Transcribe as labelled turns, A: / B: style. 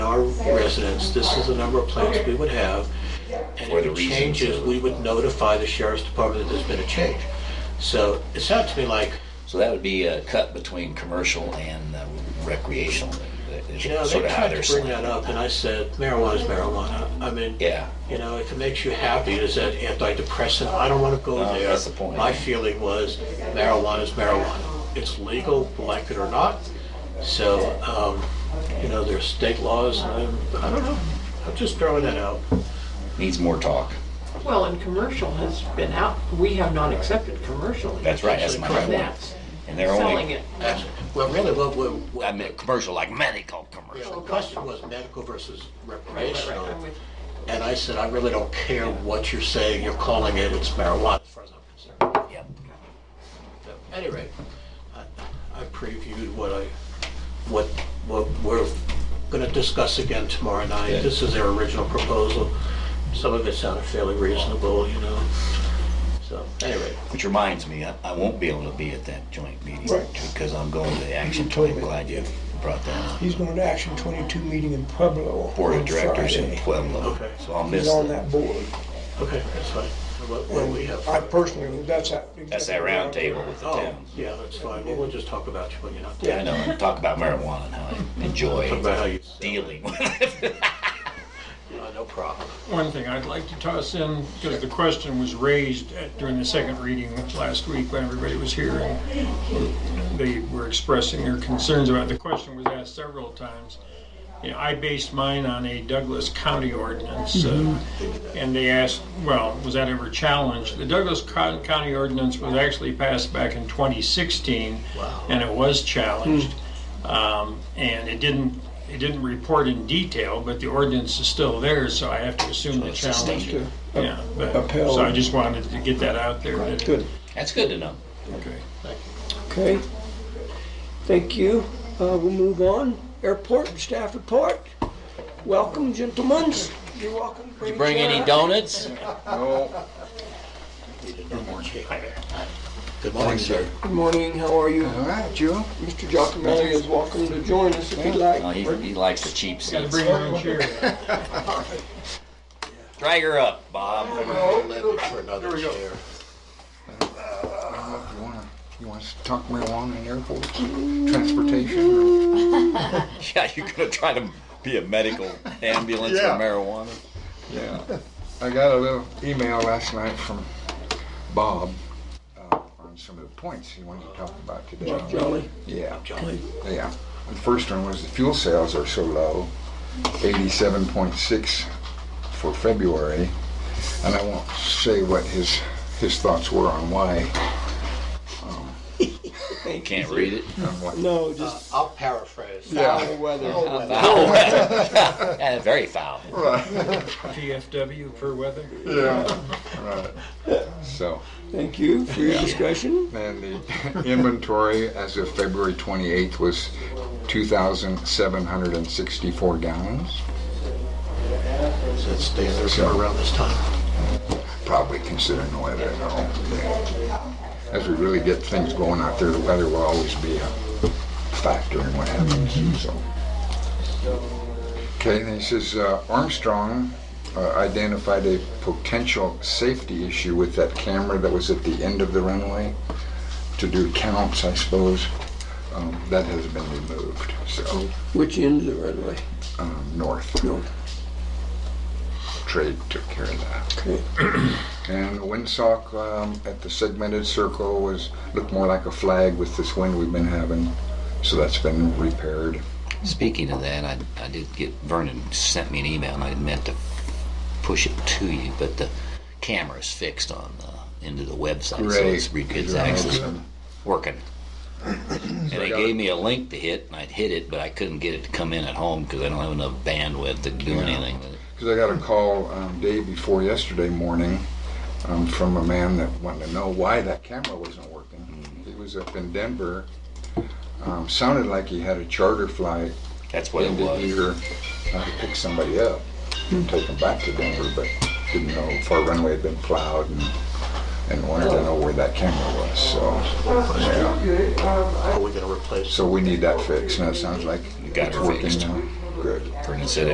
A: residents, this is the number of plants we would have. And
B: Or
A: if
B: the
A: it
B: reasons
A: changes,
B: or-
A: we would notify the sheriff's department that there's been a change. So it sounded to me like,
B: So that would be a cut between commercial and uh, recreational. is
A: you know,
B: sort
A: they
B: of how
A: tried
B: they're
A: to bring that
B: slanted.
A: up and I said marijuana's marijuana. I mean,
B: Yeah,
A: you know, if it makes you happy, is that antidepressant? I don't want to go
B: No,
A: there.
B: that's the point.
A: My feeling was marijuana's marijuana. It's legal, like it or not. So, um, you know, there's state laws and I'm, I don't know. I'm just throwing that out.
B: needs more talk.
C: Well, and commercial has been out, we have not accepted commercially.
B: That's right, that's my
A: Correct.
B: point.
C: That's
B: And they're
C: selling
B: only,
C: it.
A: That's, well, really what, what, what.
B: I meant commercial, like medical
A: Yeah,
B: commercial.
A: the question was medical versus recreational,
C: I'm with-
A: and I said, I really don't care what you're saying, you're calling it, it's marijuana, as far as I'm concerned.
B: Yep.
A: So, At any rate, I I previewed what I, what, what we're gonna discuss again tomorrow
B: Yeah.
A: night. This is their original proposal. Some of it sounded fairly reasonable, you know, so, anyway.
B: Which reminds me, I, I won't be able to be at that joint meeting because I'm going to the action.
D: told
B: I'm
D: me.
B: glad you brought that up.
D: He's going to Action 22 meeting in Pueblo
B: Board of
D: on
B: Directors in
D: Friday.
B: Pueblo,
A: Okay.
B: so I'll miss
D: He's on
B: that.
D: that board.
A: Okay, that's fine. What, what we have.
D: I personally, that's that.
B: That's that round table with the
A: Oh,
B: towns.
A: yeah, that's fine. Well, we'll just talk about you when you're not
B: Yeah, I
A: there.
B: know, and talk about marijuana and how I
A: Talk
B: enjoy
A: about how you.
B: dealing with it.
A: Uh, No problem.
E: One thing I'd like to toss in, because the question was raised at- during the second reading last week when everybody was here, and they were expressing their concerns about, it. the question was asked several times. You know, I based mine on a Douglas County ordinance, uh, and they asked, well, was that ever challenged? The Douglas Co- County ordinance was actually passed back in 2016, and it was challenged. Um, And it didn't, it didn't report in detail, but the ordinance is still there, so I have to assume the
B: it's
E: challenge.
B: sustained.
E: Yeah, but,
D: Upheld.
E: so I just wanted to get that out there. that-
D: Good.
B: That's good to know.
E: Okay.
D: Okay. Thank you. Uh, we'll move on. Airport and staff report. Welcome, gentlemen. You're welcome. Did
B: Bring any donuts?
A: Good morning, sir.
D: Good morning. How are you?
F: All right, Joe.
D: Mr. Giacomelli is welcome to join us if he'd
B: No,
D: like.
B: he, he likes the cheap
E: Gotta
B: seats.
E: bring your own chair.
B: Drag her up, Bob.
A: For another chair.
F: You want to you want to talk marijuana in airports, transportation?
B: Yeah, you're gonna try to be a medical ambulance
F: Yeah.
B: for marijuana.
F: Yeah. I got a little email last night from Bob uh, on some of the points he wanted to talk about today.
D: Jolly.
F: Yeah. Yeah. The first one was the fuel sales are so low, 87.6 for February, and I won't say what his his thoughts were on why.
B: You can't read it.
F: On what
D: No, just
A: I'll paraphrase.
F: yeah.
D: weather.
B: Yeah, very foul.
E: PFW for weather.
F: Yeah. Right. So.
D: Thank you for your discussion.
F: And the inventory as of February 28th was 2,764 gallons,
A: Does that stay there for around this time?
F: probably considering the weather and all. As we really get things going out there, the weather will always be a factor in what
D: Mm-hmm.
F: happens, so. Okay, and he says uh, Armstrong uh, identified a potential safety issue with that camera that was at the end of the runway to do counts, I suppose. Um, That has been removed, so.
D: Which end of the runway?
F: um, north.
D: North.
F: Trade took care of that.
D: Okay.
F: And the windsock um, at the segmented circle was looked more like a flag with this wind we've been having, so that's been repaired.
B: Speaking of that, I, I did get Vernon sent me an email and I meant to push it to you, but the camera's fixed on the into the website, so it's, re- it's actually working. And they gave me a link to hit, and I'd hit it, but I couldn't get it to come in at home because I don't have enough bandwidth to do anything with it.
F: Because I got a call um, day before yesterday morning um, from a man that wanted to know why that camera wasn't working.
B: Mm.
F: He was up in Denver. Um, sounded like he had a charter flight
B: That's what it
F: ended
B: was.
F: here, uh, to pick somebody up and take them back to Denver, but didn't know if our runway had been plowed and, and wanted to know where that camera was, so. yeah.
A: Are we gonna replace?
F: So we need that fixed, and it sounds like
B: got
F: it's
B: it
F: working
B: fixed.
F: now. Good.
B: Vernon said